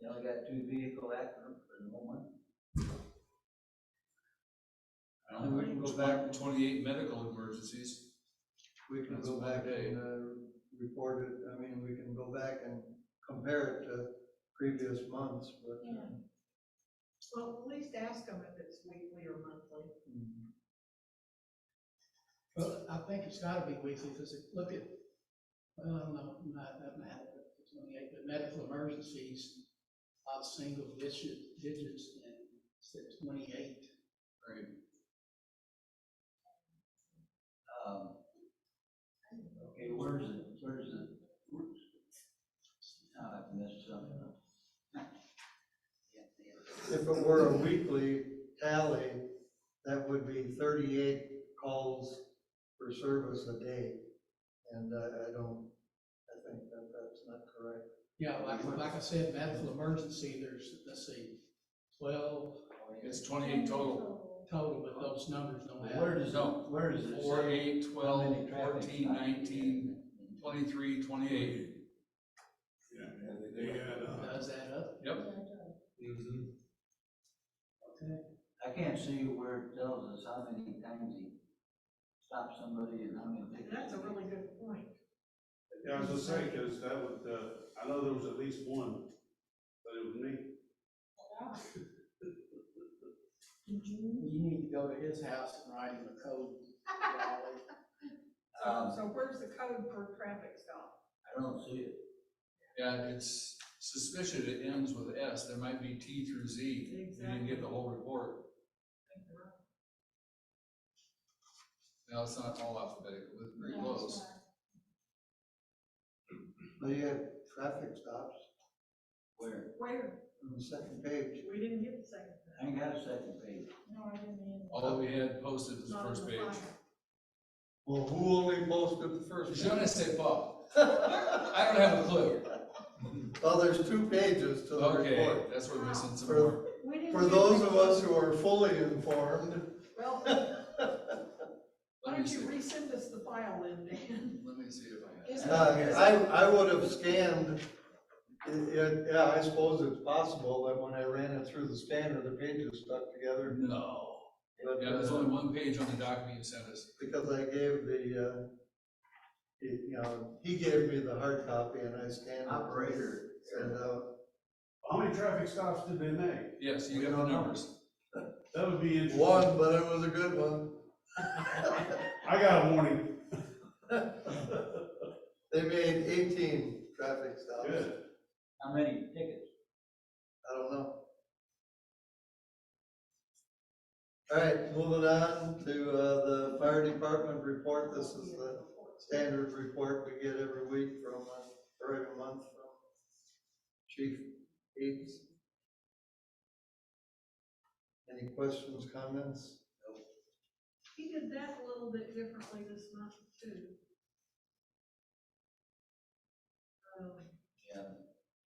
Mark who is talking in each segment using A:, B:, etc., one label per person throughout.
A: You only got two vehicle accidents for the moment.
B: I don't know,
A: We can go back-
B: twen- Twenty-eight medical emergencies,
C: We can
B: That's
C: go
B: one
C: back
B: day.
C: and, uh, report it, I mean, we can go back and compare it to previous months, but. uh,
D: Yeah. Well, at least ask them if it's weekly or monthly.
C: mm,
E: Well, I think it's gotta be weekly, because if, look at, well, I don't know, not, that matter, but it's twenty-eight, but medical emergencies, are single digit, digits, and it's at twenty-eight.
B: right?
A: Um, Okay, where's the, where's the, where's, now I've missed something up.
C: If it were a weekly tally, that would be thirty-eight calls for service a day. And I, I don't, I think that that's not correct.
E: Yeah, like, like I said, medical emergency, there's, let's see, twelve
A: Oh,
B: It's twenty-eight total,
E: total, but those numbers don't have.
A: Where does, it-
B: No.
A: where does it
B: four,
A: say?
B: eight,
A: how many
B: twelve,
A: traffic
B: fourteen,
A: stops?
B: nineteen, twenty-three, twenty-eight.
F: Yeah, they had, uh,
E: Does that up?
B: Mm-hmm.
E: Okay.
A: I can't see where it tells us how many times he stopped somebody and how many tickets.
D: That's a really good point.
F: yeah, I was just saying, cause that would, uh, I know there was at least one, but it was me.
E: You need to go to his house and write him a code. Raleigh.
D: So,
A: Um,
D: so where's the code for traffic stop?
A: I don't see it.
B: Yeah, it's suspicious it ends with S, there might be T through Z, you didn't get the whole report. Now, it's not all alphabetical, it's pretty close.
C: But you had traffic stops
A: Where?
D: Where?
C: on the second page.
D: We didn't get the second.
A: I ain't got a second page.
D: No, I didn't either.
B: All that we had posted was the
D: Not on
B: first
D: the
B: page.
D: flyer.
C: Well, who only posted the first?
B: Je ne sais pas, I don't have a clue.
C: Well, there's two pages to the
B: Okay,
C: report.
B: that's where we're missing some
C: For-
B: more.
D: We didn't
C: For
D: get
C: those
D: the-
C: of us who are fully informed,
D: Well, why
B: Let me
D: don't
B: see,
D: you resend us the file then, Dan?
B: let me see if I have.
D: Is
C: Uh,
D: it-
C: I, I would have scanned, i- i- yeah, I suppose it's possible that when I ran it through the scanner, the pages stuck together.
B: No.
C: But,
B: Yeah, there's
C: uh,
B: only one page on the document you sent us.
C: because I gave the, uh, it- you know, he gave me the hard copy and I scanned it.
A: Operator.
C: And, uh,
F: How many traffic stops did they make?
B: Yes, you
C: We
B: got the
C: don't know.
B: numbers.
F: That would be interesting.
C: one, but it was a good one.
F: I got a warning,
C: They made eighteen traffic stops.
F: good.
A: How many tickets?
C: I don't know. All right, moving on to, uh, the fire department report. This is the standard report we get every week from, uh, or every month from Chief Eads. Any questions, comments?
D: He did that a little bit differently this month too. Um,
A: Yeah.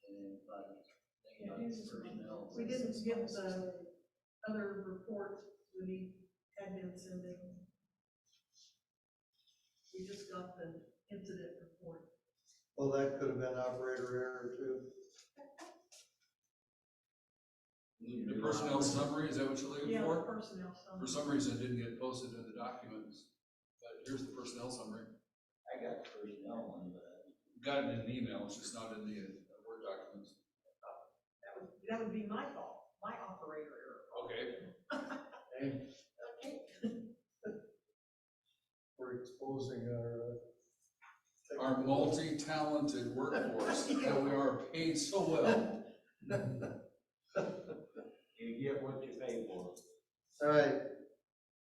A: and then, but, thing
D: Yeah,
A: about
D: he's just-
A: personnel.
D: We didn't get the other report that he had been sending. We just got the incident report.
C: Well, that could have been operator error too.
B: The personnel summary, is that what you're looking
D: Yeah, the
B: for?
D: personnel
B: For
D: summary.
B: some reason, it didn't get posted in the documents, but here's the personnel summary.
A: I got the personnel one, but I
B: Got it in an email, it's just not in the uh, Word documents.
D: That would, that would be my fault, my operator error.
B: Okay,
D: Okay.
C: We're exposing our. uh,
B: our
C: technical-
B: multi-talented workforce, that we are paid so well.
A: You get what you pay for.
C: All right,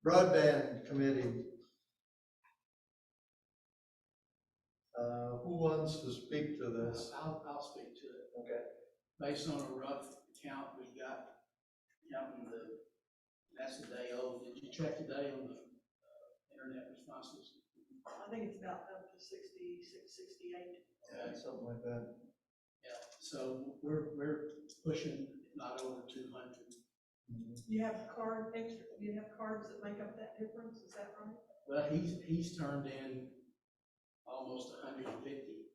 C: broadband committee. Uh, who wants to speak to this?
E: I'll, I'll speak to it.
C: Okay.
E: Based on a rough count we got, counting the, that's the day old, did you check today on the uh, internet responses?
D: I think it's about up to sixty-six, sixty-eight.
C: Yeah, Something like that.
E: Yeah, so we're, we're pushing not over two hundred.
D: You have card, extra, you have cards that make up that difference, is that right?
E: Well, he's, he's turned in almost hundred and fifty